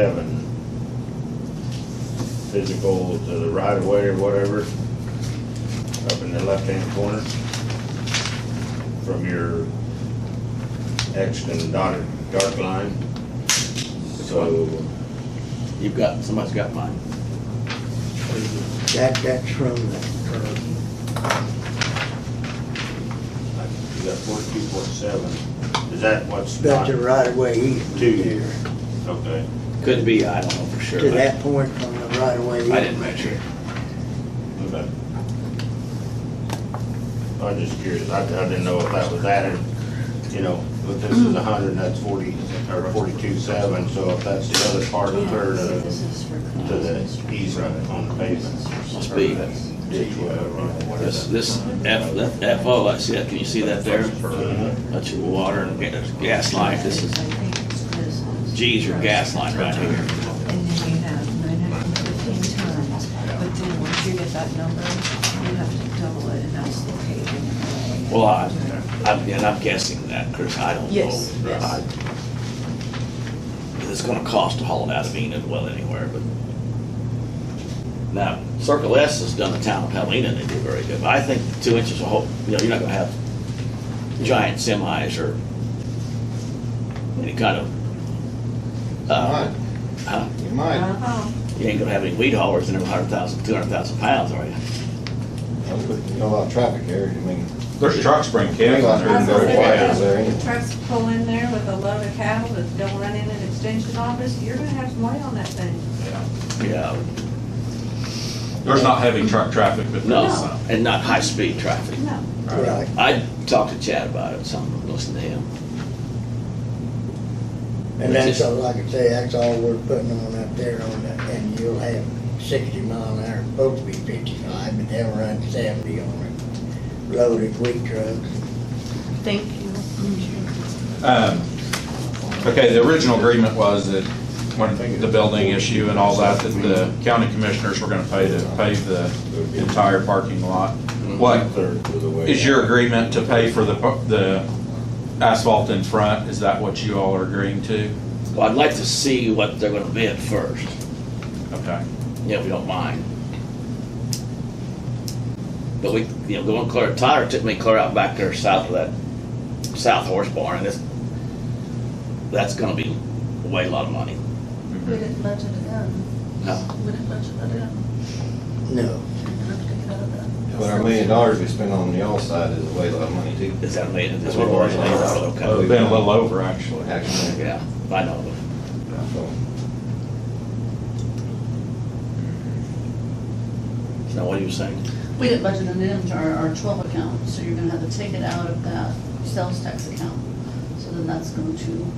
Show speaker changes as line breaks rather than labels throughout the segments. seven. Physical to the right of way or whatever, up in the left-hand corner. From your X and dotted dark line. So,
You've got, somebody's got mine.
That, that's from the,
you got forty-two point seven. Is that what's
uh, that's
not
a right of way easement.
Two
there.
years. Okay.
Could be, I don't know for sure.
To that point from the right of way
I didn't
easement.
measure it.
Okay. I'm just curious, I, I didn't know if that was added, you know, if this is a hundred, and that's forty, or forty-two seven, so if that's the uh, other part of her to, to the easement on the pavement.
Must be.
Ditch, whatever.
This, this F, that FO, I see that, can you see that there?
Mhm.
That's your water and ga- gas line, this is, G's your gas line right here.
And then you have nine hundred and fifteen tons, but then once you get that number, you have to double it, and that's the paving.
Well, I, I'm, and I'm guessing that, Chris, I don't know.
Yes, yes.
I- It's gonna cost to haul it out of Enid, well, anywhere, but. Now, Circle S has done the town of Helena, and they do very good, but I think two inches of hole, you know, you're not gonna have giant semis or any kind of. uh, huh?
You might.
Uh-oh.
You ain't gonna have any weed haulers in there, a hundred thousand, two hundred thousand pounds, are you?
You know, a lot of traffic here, I mean.
There's trucks bring kids.
Mainline's gonna go wide over there anyway.
Trucks pull in there with a load of cattle that don't run in an extension office, you're gonna have some money on that thing.
Yeah,
There's not heavy truck traffic, but there's
no,
some.
and not high-speed traffic.
No.
Right.
I talked to Chad about it, so I'm listening to him.
And that's all, like I say, that's all we're putting on up there on that, and you'll have sixty mile an hour, supposed to be fifty-five, but they'll run seventy on it. Loaded wheat trucks.
Thank you.
Um, Okay, the original agreement was that when the building issue and all that, that the county commissioners were gonna pay to pave the entire parking lot. What
Third of the way.
is your agreement to pay for the, pa- the asphalt in front? Is that what you all are agreeing to?
Well, I'd like to see what they're gonna bid first,
Okay.
you know, if you don't mind. But we, you know, going clear, Tyler took me clear out back there south of that, south horse barn, and this, that's gonna be way a lot of money.
We didn't budget it in.
No,
We didn't budget that in.
No,
We have to get out of that.
But our million dollars we spent on the all side is a way a lot of money too.
is that made, is what we're saying,
Been
okay,
a little over, actually.
Actually,
yeah, I know,
so.
is that what you were saying?
We didn't budget it in our, our twelve account, so you're gonna have to take it out of that sales tax account. So then that's going to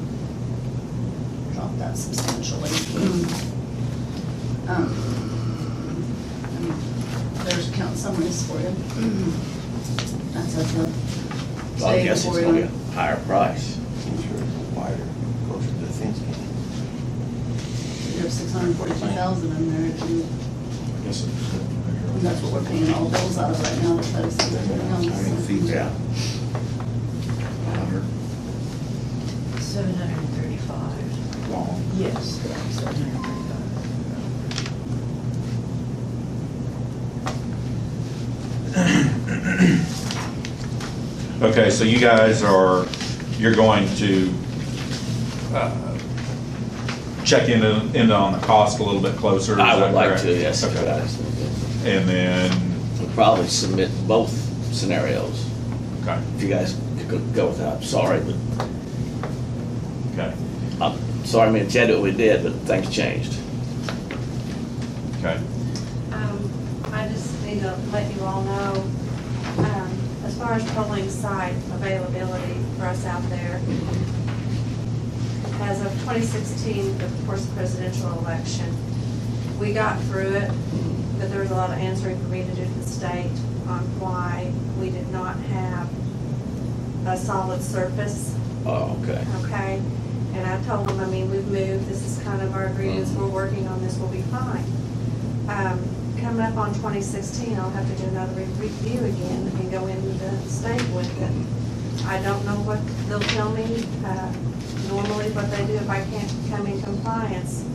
drop that substantially. Um, I mean, There's account summaries for you. That's at the.
Well, I guess it's gonna be a higher price.
Wider, closer to the fence.
You have six hundred and forty-two thousand in there, if you- and that's what we're paying all bills out of right now, um, the thirty-six
feet.
pounds.
Yeah.
Seven hundred and thirty-five. Yes. Seven hundred and thirty-five.
Okay, so you guys are, you're going to uh, check in, in on the cost a little bit closer? is
I
that
would like
correct?
to, yes. if
Okay.
that is-
And then,
We'll Probably submit both scenarios.
okay,
If you guys could go with that, I'm sorry, but,
okay,
I'm sorry, I mean, Chad, what we did, but things changed.
okay.
Um, I just need to let you all know, um, as far as polling site availability for us out there, as of 2016, the first presidential election, we got through it, but there was a lot of answering for me to do to the state on why we did not have a solid surface
Oh, okay.
okay? And I told them, I mean, we've moved, this is kind of our agreements, we're working on this, we'll be fine. Um, Coming up on 2016, I'll have to do another re- review again and go into the state with it. I don't know what they'll tell me, uh, normally what they do if I can't come in compliance.